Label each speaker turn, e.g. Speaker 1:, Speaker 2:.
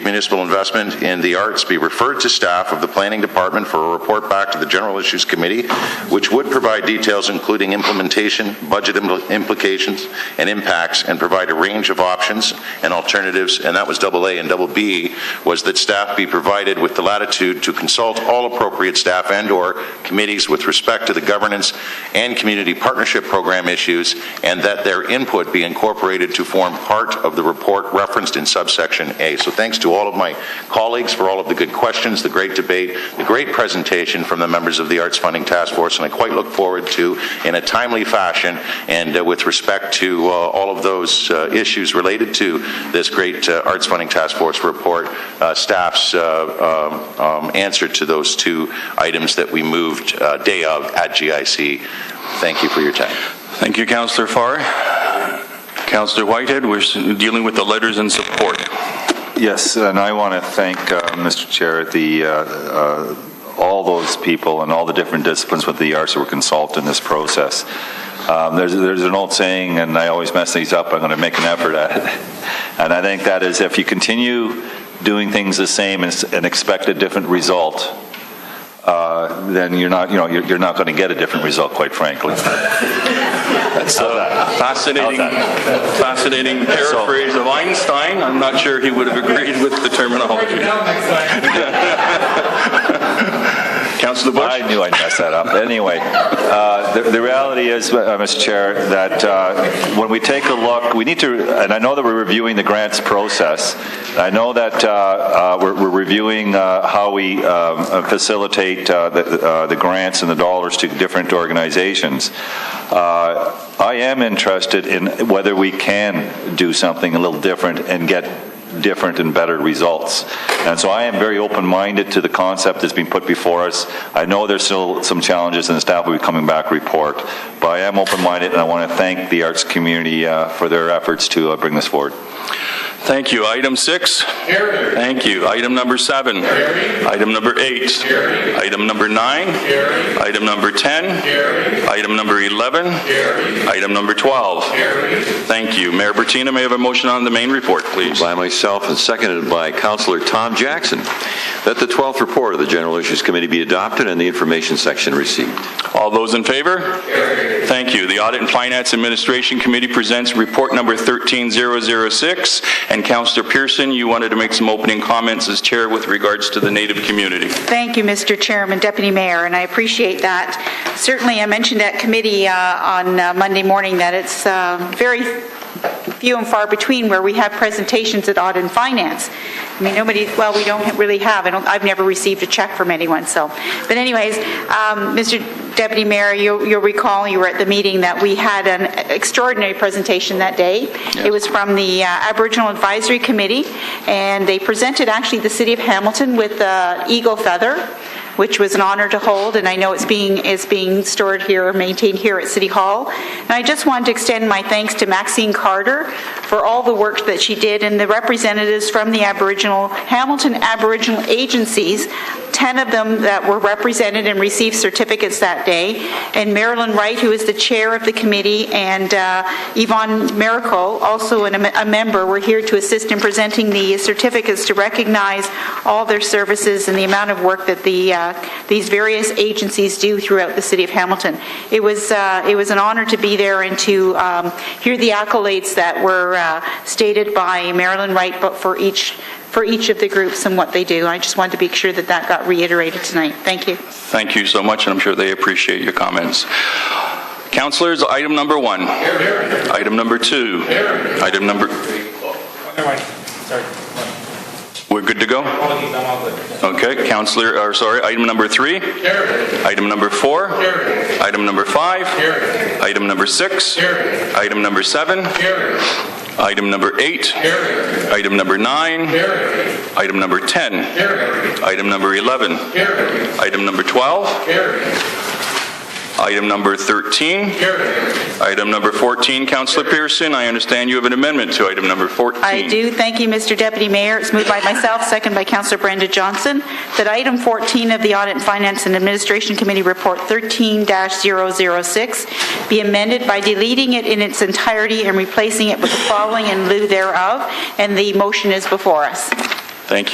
Speaker 1: municipal investment in the arts be referred to staff of the Planning Department for a report back to the General Issues Committee, which would provide details including implementation, budget impl- implications, and impacts, and provide a range of options and alternatives. And that was double A. And double B was that staff be provided with the latitude to consult all appropriate staff and/or committees with respect to the governance and community partnership program issues, and that their input be incorporated to form part of the report referenced in subsection A. So thanks to all of my colleagues for all of the good questions, the great debate, the great presentation from the members of the Arts Funding Task Force, and I quite look forward to, in a timely fashion, and uh, with respect to uh, all of those uh, issues related to this great uh, Arts Funding Task Force report, uh, staff's uh, um, um, answer to those two items that we moved uh, day of at GIC. Thank you for your time.
Speaker 2: Thank you, Councillor Farr. Councillor Whitehead, we're s- dealing with the letters and support.
Speaker 3: Yes, and I want to thank, uh, Mr. Chair, the, uh, uh, all those people and all the different disciplines with the arts that were consulted in this process. Um, There's, there's an old saying, and I always mess these up, I'm going to make an effort at it. And I think that is if you continue doing things the same and s- and expect a different result, uh, then you're not, you know, you're you're not going to get a different result, quite frankly.
Speaker 2: Fascinating, fascinating paraphrase of Einstein. I'm not sure he would have agreed with the terminology. Councillor Bush?
Speaker 3: I knew I'd mess that up. Anyway, uh, the, the reality is, uh, Mr. Chair, that uh, when we take a look, we need to, and I know that we're reviewing the grants process. I know that uh, uh, we're, we're reviewing uh, how we um, uh, facilitate uh, the, uh, the grants and the dollars to different organizations. Uh, I am interested in whether we can do something a little different and get different and better results. And so I am very open-minded to the concept that's been put before us. I know there's still some challenges, and the staff will be coming back to report, but I am open-minded, and I want to thank the arts community uh, for their efforts to uh, bring this forward.
Speaker 2: Thank you. Item six? Thank you. Item number seven? Item number eight? Item number nine? Item number 10? Item number 11? Item number 12? Thank you. Mayor Bertina, may I have a motion on the main report, please?
Speaker 4: by myself and seconded by Councillor Tom Jackson, that the 12th report of the General Issues Committee be adopted and the information section received.
Speaker 2: All those in favor? Thank you. The Audit and Finance Administration Committee presents report number 13006. And Councillor Pearson, you wanted to make some opening comments as chair with regards to the Native community.
Speaker 5: Thank you, Mr. Chairman, Deputy Mayor, and I appreciate that. Certainly, I mentioned at committee uh, on uh, Monday morning that it's uh, very few and far between where we have presentations at Audit and Finance. I mean, nobody, well, we don't really have, I don't, I've never received a check from anyone, so. But anyways, um, Mr. Deputy Mayor, you- you'll recall, you were at the meeting that we had an extraordinary presentation that day. It was from the uh, Aboriginal Advisory Committee, and they presented actually the city of Hamilton with the eagle feather which was an honor to hold, and I know it's being, is being stored here, maintained here at City Hall. And I just wanted to extend my thanks to Maxine Carter for all the work that she did, and the representatives from the Aboriginal, Hamilton Aboriginal agencies, 10 of them that were represented and received certificates that day, and Marilyn Wright, who is the chair of the committee, and uh, Yvonne Miracle, also an- a member, were here to assist in presenting the certificates to recognize all their services and the amount of work that the, uh, these various agencies do throughout the city of Hamilton. It was, uh, it was an honor to be there and to um, hear the accolades that were uh, stated by Marilyn Wright but for each, for each of the groups and what they do. I just wanted to make sure that that got reiterated tonight. Thank you.
Speaker 2: Thank you so much, and I'm sure they appreciate your comments. Councilors, item number one. Item number two. Item number,
Speaker 6: Never mind. Sorry.
Speaker 2: we're good to go?
Speaker 6: Apologies, I'm all good.
Speaker 2: Okay, Councilor, or sorry, item number three. Item number four. Item number five. Item number six. Item number seven. Item number eight. Item number nine. Item number 10. Item number 11. Item number 12. Item number 13. Item number 14, Councillor Pearson, I understand you have an amendment to item number 14.
Speaker 5: I do. Thank you, Mr. Deputy Mayor. It's moved by myself, second by Councillor Brenda Johnson, that item 14 of the Audit and Finance and Administration Committee Report 13-006 be amended by deleting it in its entirety and replacing it with the following in lieu thereof, and the motion is before us.